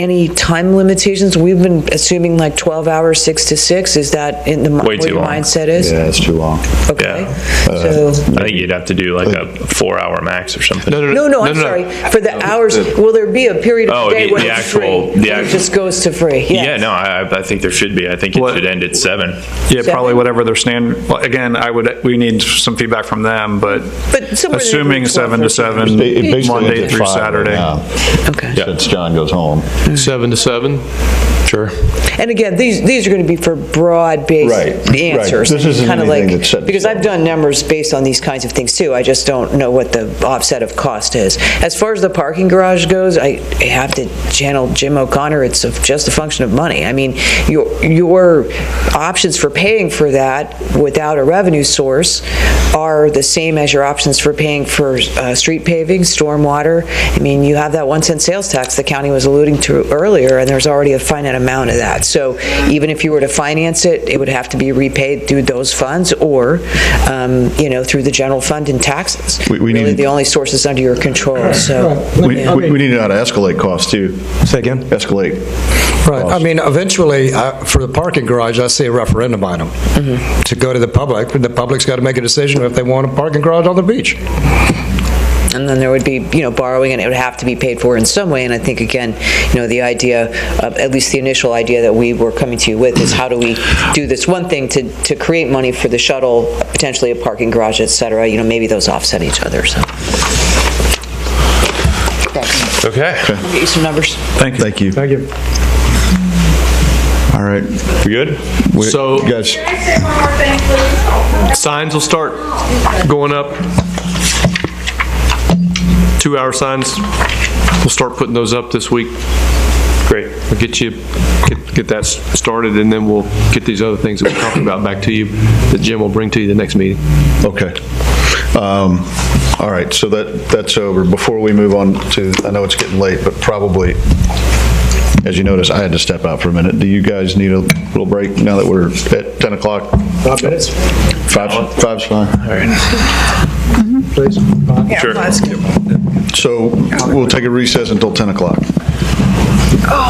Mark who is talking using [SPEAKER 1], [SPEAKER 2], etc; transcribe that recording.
[SPEAKER 1] any time limitations? We've been assuming like 12 hours, 6 to 6, is that in the, mi-
[SPEAKER 2] Way
[SPEAKER 1] what
[SPEAKER 2] too
[SPEAKER 1] your
[SPEAKER 2] long.
[SPEAKER 1] mindset is?
[SPEAKER 3] Yeah, it's too long.
[SPEAKER 1] Okay.
[SPEAKER 2] Yeah.
[SPEAKER 1] So,
[SPEAKER 2] I think you'd have to do like a four-hour max or something.
[SPEAKER 1] no, no, I'm sorry, for the hours, will there be a period
[SPEAKER 2] Oh,
[SPEAKER 1] of the day
[SPEAKER 2] the-
[SPEAKER 1] when
[SPEAKER 2] the
[SPEAKER 1] it's free?
[SPEAKER 2] actual- the
[SPEAKER 1] When It
[SPEAKER 2] act-
[SPEAKER 1] just goes to free, yes.
[SPEAKER 2] Yeah, no, I, I- I think there should be. I think it
[SPEAKER 4] What-
[SPEAKER 2] should end at seven.
[SPEAKER 4] Yeah, probably
[SPEAKER 1] Seven?
[SPEAKER 4] whatever their stand, well, again, I would, we need some feedback from them, but
[SPEAKER 1] But somewhere in
[SPEAKER 4] assuming
[SPEAKER 1] between
[SPEAKER 4] seven to
[SPEAKER 1] 12
[SPEAKER 4] seven,
[SPEAKER 3] It- it basically
[SPEAKER 4] Monday
[SPEAKER 3] ends at
[SPEAKER 4] through
[SPEAKER 3] five right
[SPEAKER 4] Saturday.
[SPEAKER 3] now,
[SPEAKER 1] Okay.
[SPEAKER 3] Since John goes home.
[SPEAKER 5] Seven to seven? Sure.
[SPEAKER 1] And again, these, these are going to be for
[SPEAKER 3] Right,
[SPEAKER 1] broad-based
[SPEAKER 3] right.
[SPEAKER 1] answers.
[SPEAKER 3] This isn't
[SPEAKER 1] kinda
[SPEAKER 3] anything
[SPEAKER 1] like-
[SPEAKER 3] that's set in
[SPEAKER 1] Because I've
[SPEAKER 3] stone.
[SPEAKER 1] done numbers based on these kinds of things too, I just don't know what the offset of cost is. As far as the parking garage goes, I I have to channel Jim O'Connor, it's a- just a function of money. I mean, your, your options for paying for that without a revenue source are the same as your options for paying for uh, street paving, stormwater. I mean, you have that one cent sales tax the county was alluding to earlier, and there's already a finite amount of that. So even if you were to finance it, it would have to be repaid through those funds or, um, you know, through the general fund and taxes.
[SPEAKER 3] We- we
[SPEAKER 1] Really,
[SPEAKER 3] need-
[SPEAKER 1] the only sources under your control, so.
[SPEAKER 6] Right.
[SPEAKER 3] We we- we need to know how to escalate costs too.
[SPEAKER 6] Say again?
[SPEAKER 3] Escalate.
[SPEAKER 6] Right, I mean, eventually, uh, for the parking garage, I see a referendum item to go to the public, the public's got to make a decision if they want a parking garage on the beach.
[SPEAKER 1] And then there would be, you know, borrowing, and it would have to be paid for in some way. And I think, again, you know, the idea, of- at least the initial idea that we were coming to you with, is how do we do this one thing to, to create money for the shuttle, potentially a parking garage, et cetera? You know, maybe those offset each other, so. Thanks.
[SPEAKER 5] Okay.
[SPEAKER 1] I'll Get you some numbers.
[SPEAKER 3] Thank you. Thank you. Thank you. All right.
[SPEAKER 2] We good?
[SPEAKER 3] We-
[SPEAKER 5] So-
[SPEAKER 3] Guys,
[SPEAKER 7] Can I say one more thing, please?
[SPEAKER 5] Signs will start going up. Two-hour signs, we'll start putting those up this week. Great. We'll get you, get- get that s- started, and then we'll get these other things that we talked about back to you, that Jim will bring to you the next meeting.
[SPEAKER 3] okay. Um, All right, so that, that's over. Before we move on to, I know it's getting late, but probably, as you notice, I had to step out for a minute. Do you guys need a little break now that we're at 10 o'clock? Five minutes. Five, five's fine. All right. Please. Sure. So we'll take a recess until 10 o'clock.